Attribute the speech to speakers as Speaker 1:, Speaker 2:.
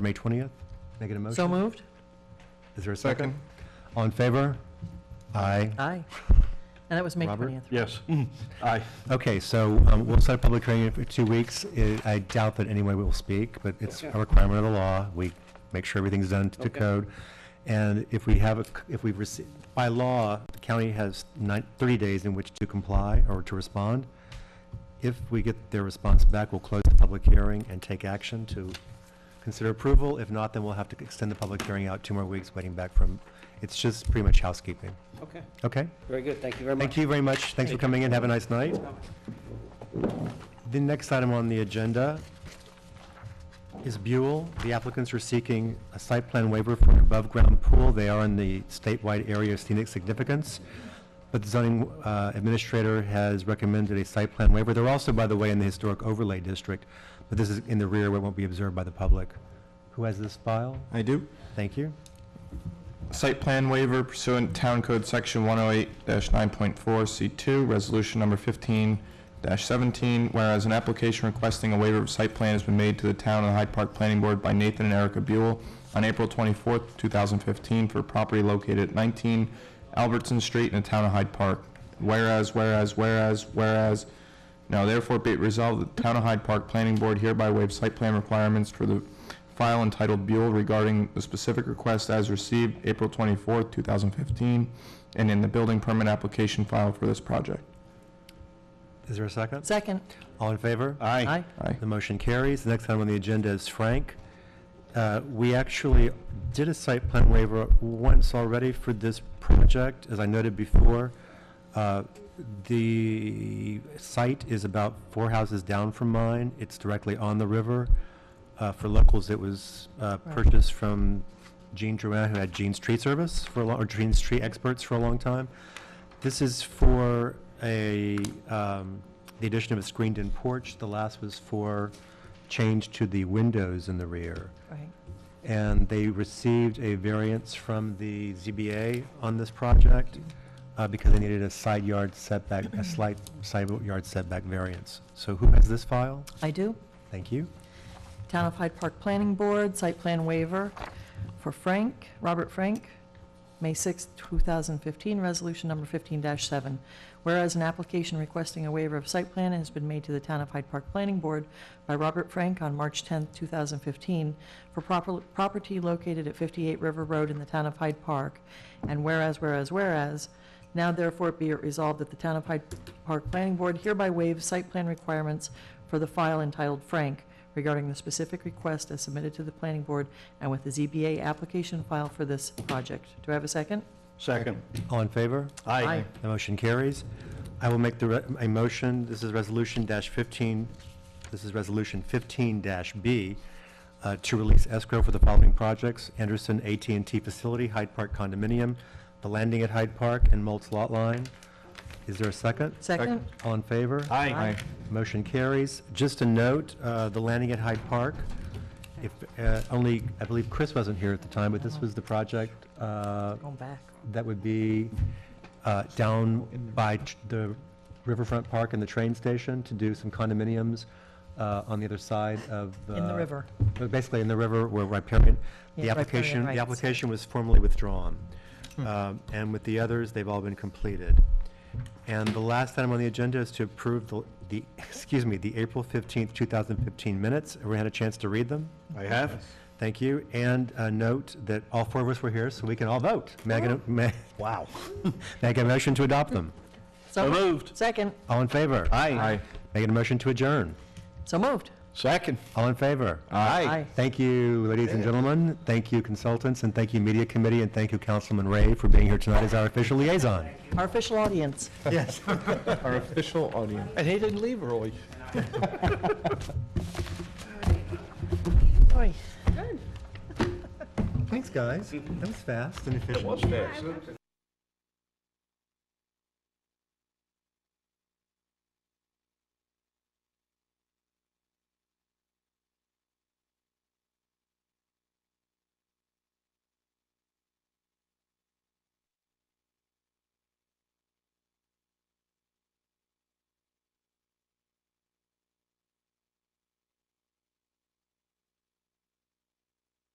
Speaker 1: May 20th? Make it a motion?
Speaker 2: So moved?
Speaker 1: Is there a second? All in favor? Aye.
Speaker 2: Aye. And that was May
Speaker 1: Robert?
Speaker 2: 20th.
Speaker 3: Yes. Aye.
Speaker 1: Okay, so um, we'll set a public hearing for two weeks. I- I doubt that anyone will speak, but it's a requirement of the law. We make sure everything's done to
Speaker 3: Okay.
Speaker 1: code. And if we have, a c- if we've received, by law, the county has nine- 30 days in which to comply or to respond. If we get their response back, we'll close the public hearing and take action to consider approval. If not, then we'll have to extend the public hearing out two more weeks, waiting back from, it's just pretty much housekeeping.
Speaker 4: Okay,
Speaker 1: Okay?
Speaker 4: very good, thank you very much.
Speaker 1: Thank you very much. Thanks for coming in. Have a nice night. The next item on the agenda is Buell. The applicants are seeking a site plan waiver for an above-ground pool. They are in the statewide area of scenic significance, but the zoning uh, administrator has recommended a site plan waiver. They're also, by the way, in the historic overlay district, but this is in the rear where it won't be observed by the public. Who has this file?
Speaker 5: I do.
Speaker 1: Thank you.
Speaker 5: Site plan waiver pursuant Town Code Section 108-9.4C2, Resolution Number 15-17, whereas an application requesting a waiver of site plan has been made to the Town and Hyde Park Planning Board by Nathan and Erica Buell on April 24th, 2015, for property located at 19 Albertson Street in the Town of Hyde Park. Whereas, whereas, whereas, whereas, Now therefore be it resolved that the Town of Hyde Park Planning Board hereby waives site plan requirements for the file entitled Buell regarding the specific request as received April twenty-fourth, two thousand fifteen, and in the building permit application file for this project.
Speaker 1: Is there a second?
Speaker 2: Second?
Speaker 1: All in favor?
Speaker 2: Aye.
Speaker 5: Aye.
Speaker 1: The motion carries. The next item on the agenda is Frank. Uh, We actually did a site plan waiver once already for this project. As I noted before, uh, the site is about four houses down from mine. It's directly on the river. Uh, For locals, it was uh,
Speaker 2: Right.
Speaker 1: purchased from Gene Drouin, who had Gene's Tree Service for, a lo- or Gene's Tree Experts for a long time. This is for a, um, the addition of a screened-in porch. The last was for change to the windows in the rear.
Speaker 2: Right.
Speaker 1: And they received a variance from the ZBA on this project uh, because they needed a side yard setback, a slight side yard setback variance. So who has this file?
Speaker 2: I do.
Speaker 1: Thank you.
Speaker 2: Town of Hyde Park Planning Board, site plan waiver for Frank, Robert Frank, May 6, 2015, resolution number 15-7. Whereas an application requesting a waiver of site plan has been made to the Town of Hyde Park Planning Board by Robert Frank on March 10, 2015, for proper- property located at 58 River Road in the Town of Hyde Park. And whereas, whereas, whereas, now therefore be it resolved that the Town of Hyde Park Planning Board hereby waives site plan requirements for the file entitled Frank regarding the specific request as submitted to the planning board and with the ZBA application file for this project. Do I have a second?
Speaker 3: Second.
Speaker 1: All in favor?
Speaker 2: Aye.
Speaker 1: The motion carries. I will make the, re- a motion, this is resolution dash fifteen, this is resolution fifteen dash B, uh, to release escrow for the following projects, Anderson at and T Facility, Hyde Park Condominium, The Landing at Hyde Park, and Moltz Lot Line. Is there a second?
Speaker 2: Second?
Speaker 1: All in favor?
Speaker 3: Aye.
Speaker 1: Motion carries. Just a note, uh, the landing at Hyde Park, if, uh, only, I believe Chris wasn't here at the time, but this was the project uh,
Speaker 2: Going back.
Speaker 1: that would be uh, down by tr- the Riverfront Park and the train station to do some condominiums uh, on the other side of the...
Speaker 2: In the river.
Speaker 1: but Basically in the river where riparian, the
Speaker 2: Yeah, riparian
Speaker 1: application, the
Speaker 2: rights.
Speaker 1: application was formally withdrawn. Um, And with the others, they've all been completed. And the last item on the agenda is to approve the- the, excuse me, the April 15th, 2015 minutes. Everyone had a chance to read them?
Speaker 3: I have.
Speaker 1: Thank you, and uh, note that all four of us were here, so we can all vote. May I get a, may, wow. May I get a motion to adopt them?
Speaker 2: So
Speaker 3: moved.
Speaker 2: Second?
Speaker 1: All in favor?
Speaker 3: Aye.
Speaker 1: May I get a motion to adjourn?
Speaker 2: So moved.
Speaker 3: Second.
Speaker 1: All in favor?
Speaker 2: Aye.
Speaker 1: Thank you, ladies and gentlemen, thank you consultants, and thank you media committee, and thank you Councilman Ray for being here tonight as our official liaison.
Speaker 2: Our official audience.
Speaker 1: Yes.
Speaker 5: Our official audience.
Speaker 3: And he didn't leave early.
Speaker 2: Oy.
Speaker 1: Thanks, guys. That was fast and efficient.
Speaker 3: What's next?